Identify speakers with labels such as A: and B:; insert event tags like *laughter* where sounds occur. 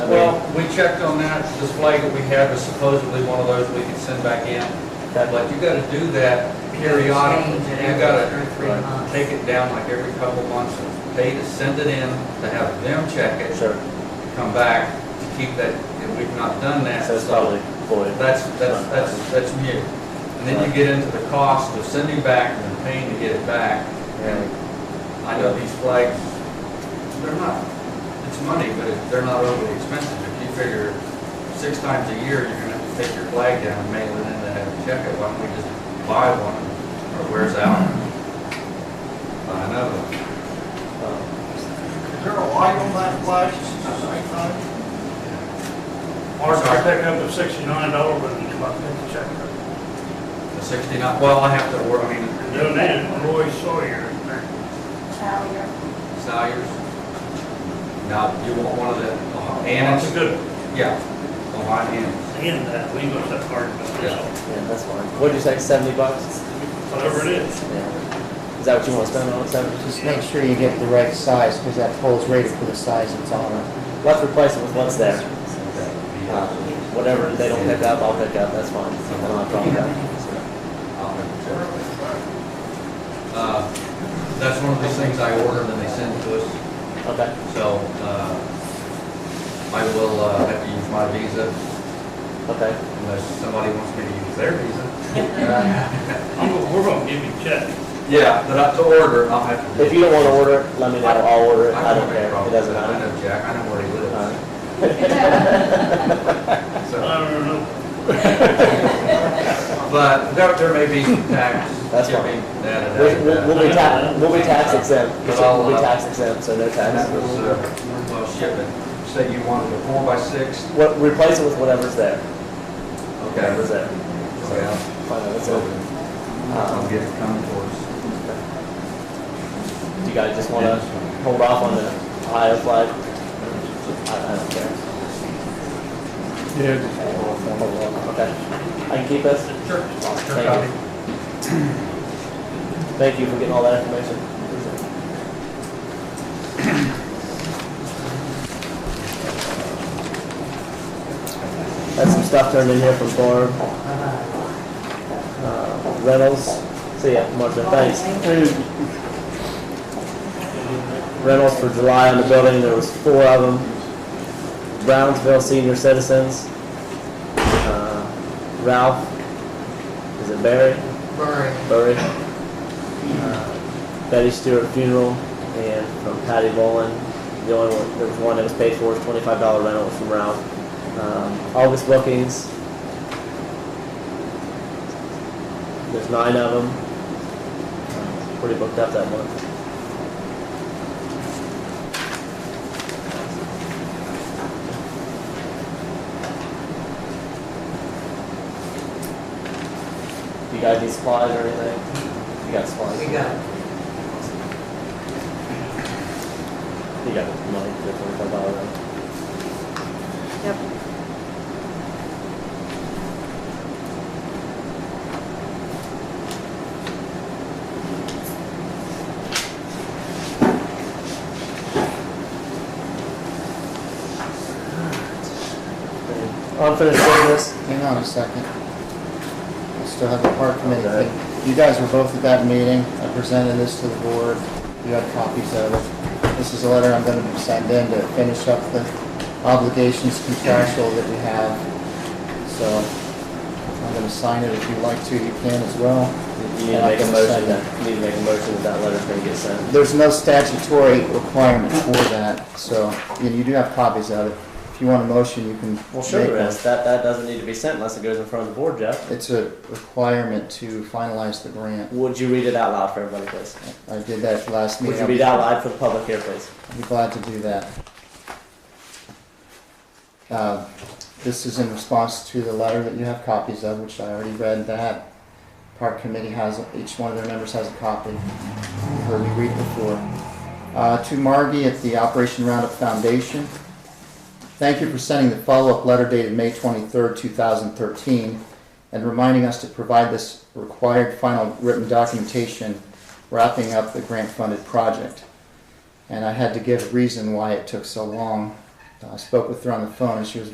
A: we checked on that display that we have is supposedly one of those we can send back in. But you gotta do that periodically.
B: Change it
A: You
B: every
A: gotta
B: two or three
A: uh,
B: months.
A: take it down like every couple months, pay to send it in, to have them check it,
C: Sure,
A: come back, to keep that, and we've not done that.
C: so it's probably void.
A: That's, that's, that's, that's new. And then you get into the cost of sending back and the pain to get it back.
C: Yeah.
A: I know these flags, they're not, it's money, but it- they're not overly expensive. If you figure six times a year, you're gonna have to take your flag down and mail it in to have it checked, why don't we just buy one or where's out? Buy another.
C: Um,
D: Is there a light on that flash at the same time?
E: Mark, I picked up a sixty-nine dollar when you come up and check it.
A: The sixty-nine, well, I have to work, I mean,
E: Doing that, Roy
D: *laughs*
E: Sawyer,
A: Salyers. Now, you want one of the uh,
E: that's a
A: Annans?
E: good
A: Yeah, Ohio Annans.
E: in that, we must have hard, but
C: Yeah, that's fine. What'd you say, seventy bucks?
E: whatever it is.
C: Yeah. Is that what you want to spend on it, seventy?
F: Just make sure you get the right size, because that pole's rated for the size it's on.
C: Let's replace it with what's there. Uh,
A: Okay.
C: Whatever they don't pick up, I'll pick up, that's fine. I don't have a problem with that.
A: Uh, That's one of those things I ordered and they send to us,
C: Okay,
A: so uh, I will uh, have to use my visa
C: okay.
A: unless somebody wants me to use their visa.
E: I'm, gonna- we're gonna give you a check.
A: Yeah, but I- to order, I'll have to.
C: If you don't want to order it, let me know, I'll order it, I don't care, it doesn't
A: I
C: matter.
A: know Jack, I know where he
C: Alright.
A: lives. So,
E: I don't know,
A: But there there may be tax.
C: *laughs* That's fine.
A: shipping, that and
C: We'll, we'll-
A: that.
C: we'll be tax, we'll be tax exempt, we'll be tax exempt, so no
A: And that was,
C: tax.
A: uh, well, shipping, say you wanted a four by six,
C: What, replace it with whatever's there,
A: okay.
C: whatever's there.
A: Well,
C: Fine, that's it.
A: I'll
C: Um,
A: get it coming for us.
C: do you guys just want to hold off on the Ohio flag? I, I don't care.
D: Yeah.
C: Okay, hold on, hold on. Okay, I can keep this?
A: Sure.
C: Thank you. Thank you for getting all that information. Had some stuff turned in here from Barb. Uh, Reynolds, see ya, Martha, thanks. Reynolds for July on the building, there was four of them. Brownsville Senior Citizens. Uh, Ralph, is it Barry?
D: Very.
C: Burry, uh, Betty Stewart funeral, and from Patty Boland. The only one, there was one that was paid for, was twenty-five dollar rental from Ralph. Um, August bookings. There's nine of them. Uh, Pretty booked up that month. You guys need supplies or anything? You got supplies?
B: We got,
C: You got the money for the twenty-five dollar rental.
G: Yep.
C: Unfinished business?
F: Hang on a second. I still have the park committee thing. You guys were both at that meeting. I presented this to the board. You had copies of it. This is a letter I'm gonna send in to finish up the obligations contractual that we have. So I'm gonna sign it if you'd like to. You can as well.
C: You need to make a motion that, you need to make a motion that that letter's gonna get sent.
F: There's no statutory requirement for that, so you you do have copies of it. If you want a motion, you can
C: Well,
F: make
C: sure there
F: one.
C: is. That, that doesn't need to be sent unless it goes in front of the board, Jeff.
F: It's a requirement to finalize the grant.
C: Would you read it out loud for everybody, please?
F: I did that last
C: Would
F: meeting.
C: you read it out loud for the public here, please?
F: I'd be glad to do that. Uh, This is in response to the letter that you have copies of, which I already read that. Park Committee has, each one of their members has a copy. You heard me read before. Uh, To Margie at the Operation Roundup Foundation. Thank you for sending the follow-up letter dated May 23rd, 2013, and reminding us to provide this required final written documentation wrapping up the grant-funded project and I had to give a reason why it took so long. I spoke with her on the phone and she was